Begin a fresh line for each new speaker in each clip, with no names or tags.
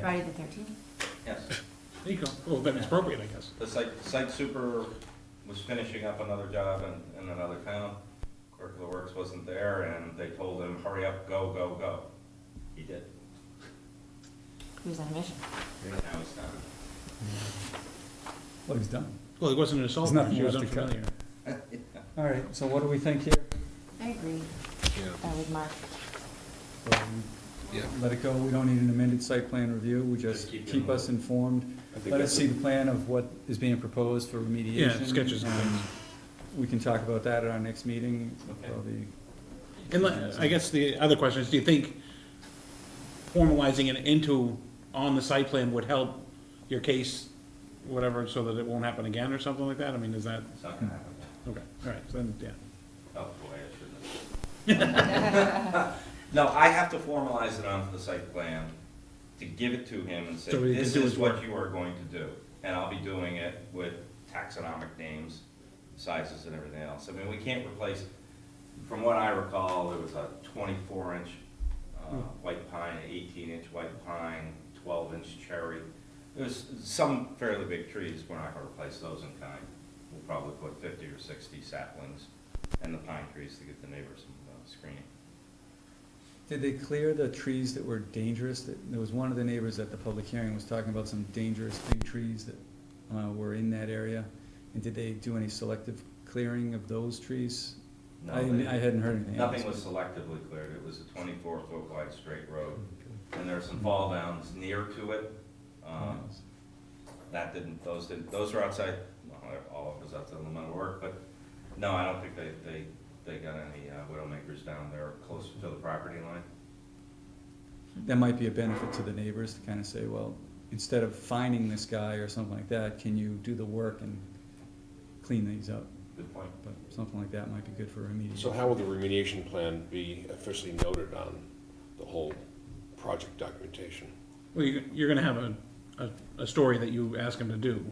Friday the thirteenth?
Yes,
There you go. Well, then it's appropriate, I guess.
the site, site super was finishing up another job in, in another town. Clerk of the Works wasn't there, and they told him, hurry up, go, go, go. He did.
He was on a mission.
Now he's done.
Well, he's done.
Well, it wasn't an assault,
There's nothing
she was
left to cut.
unfamiliar.
All right, so what do we think here?
I agree uh, with Mark.
Um, Let it go, we don't need an amended site plan review, we just
Just keep it
keep
in.
us informed. Let us see the plan of what is being proposed for remediation.
Yeah, sketches and
Um,
things.
We can talk about that at our next meeting, probably.
And let- I guess the other question is, do you think formalizing it into, on the site plan would help your case, whatever, so that it won't happen again or something like that? I mean, is that,
It's not gonna happen.
okay, all right, so then, yeah.
Oh, boy, I shouldn't have. No, I have to formalize it onto the site plan, to give it to him and say,
So he can
this
do
is
his
what
work."
you are going to do. And I'll be doing it with taxonomic names, sizes and everything else. I mean, we can't replace, from what I recall, there was a twenty-four inch, uh,
Hmm.
white pine, eighteen inch white pine, twelve inch cherry. There's some fairly big trees, we're not gonna replace those in kind. We'll probably put fifty or sixty saplings and the pine trees to give the neighbors some uh, screening.
Did they clear the trees that were dangerous? That- There was one of the neighbors at the public hearing was talking about some dangerous big trees that uh, were in that area. And did they do any selective clearing of those trees?
No,
I
they-
I hadn't heard anything. else.
Nothing was selectively cleared, it was a twenty-four foot wide straight road, and there are some fall downs near to it. Um, That didn't, those didn't, those were outside, well, they're all of us outside the limit of work, but no, I don't think they, they, they got any uh, widowmakers down there closer to the property line.
That might be a benefit to the neighbors to kind of say, well, instead of finding this guy or something like that, can you do the work and clean these up?
Good point.
But something like that might be good for remediation.
So how will the remediation plan be officially noted on the whole project documentation?
Well, you, you're gonna have a, a, a story that you ask him to do,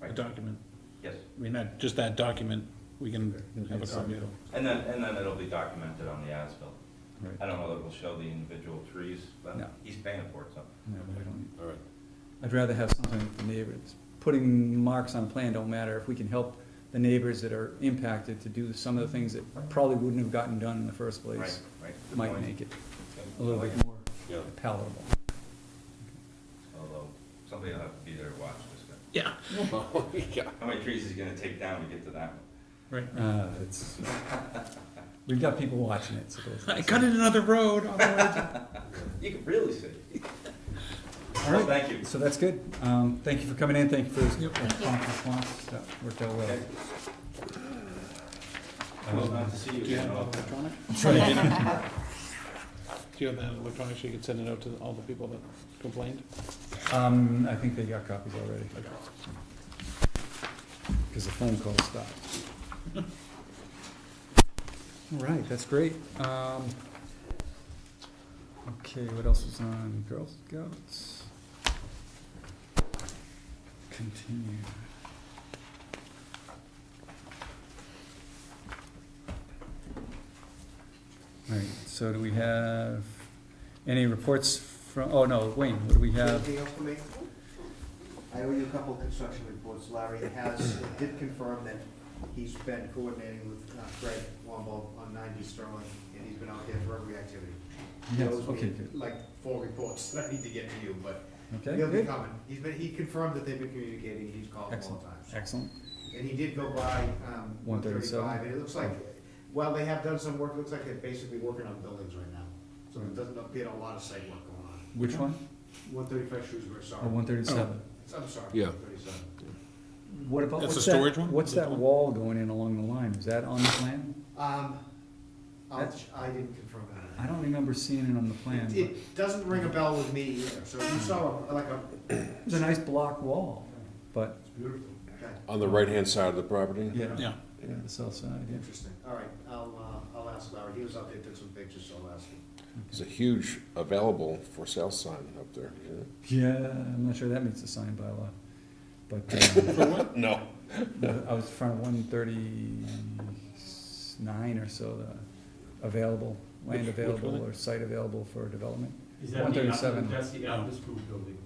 a
Right.
document.
Yes,
I mean, that, just that document, we can have a copy of.
and then, and then it'll be documented on the as-built.
Right.
I don't know that it'll show the individual trees, but
No.
he's paying for it, so.
No, we don't need-
All right,
I'd rather have something with the neighbors. Putting marks on a plan don't matter if we can help the neighbors that are impacted to do some of the things that probably wouldn't have gotten done in the first
Right,
place.
right. good
Might
point.
make it
Yep.
a little bit more
yeah,
palatable.
Although, somebody will have to be there to watch this guy.
Yeah,
yeah.
How many trees is he gonna take down to get to that one?
right.
Uh, it's, we've got people watching it, so. it's-
I cut in another road on the way to-
You can really see.
All right.
Thank you.
So that's good. Um, thank you for coming in. Thank you for this
Yep.
prompt response. That worked out well.
Okay. I was not to see you
Do you
again.
have
I'll-
that electronic? Do you have that electronic so you can send it out to all the people that complained?
Um, I think they got copies already. Because the phone call stopped. All right, that's great. Um, okay, what else is on Girl Scouts? Continue. All right, so do we have any reports from, oh no, Wayne, what do we have?
Anything else for me? I owe you a couple of construction reports. Larry has, did confirm that he's been coordinating with uh, Greg Womble on ninety Sterling, and he's been out there for every activity. He
Yes,
owes me,
okay, good.
Like four reports that I need to get to you, but
Okay,
he'll be
good.
coming. He's been, he confirmed that they've been communicating, he's called all
Excellent,
the time.
excellent.
And he did go by, um, one
137.
thirty-five, and it looks
Oh.
like, while they have done some work, it looks like they're basically working on buildings right now. So
Mm.
there doesn't appear a lot of site work going on.
Which one?
One thirty-five Shrewsbury, sorry.
Oh, one thirty-seven.
I'm sorry.
Yeah.
Thirty-seven.
What about,
That's
what's
the
that,
storage one?
what's
That's
that
one?
wall going in along the line? Is that on the plan?
Um, I'll,
That's-
I didn't confirm
I
that.
don't remember seeing it on the plan,
It-
but
It doesn't ring a bell with me either, so
Mm.
you saw like a,
it's a nice block wall, but,
it's beautiful. Okay,
On the right-hand side of the property?
yeah,
Yeah.
yeah, the south side, yeah.
Interesting, all right, I'll, uh, I'll ask Larry, he was out there, took some pictures, so I'll ask him.
There's a huge available for sale sign up there. yeah.
Yeah, I'm not sure that meets the sign by law, but, um,
No.
the- I was in front of one thirty-nine or so, the available, land
Which- which
available
one?
or site available for development.
Is that the,
137.
Apple- that's the Apple School building.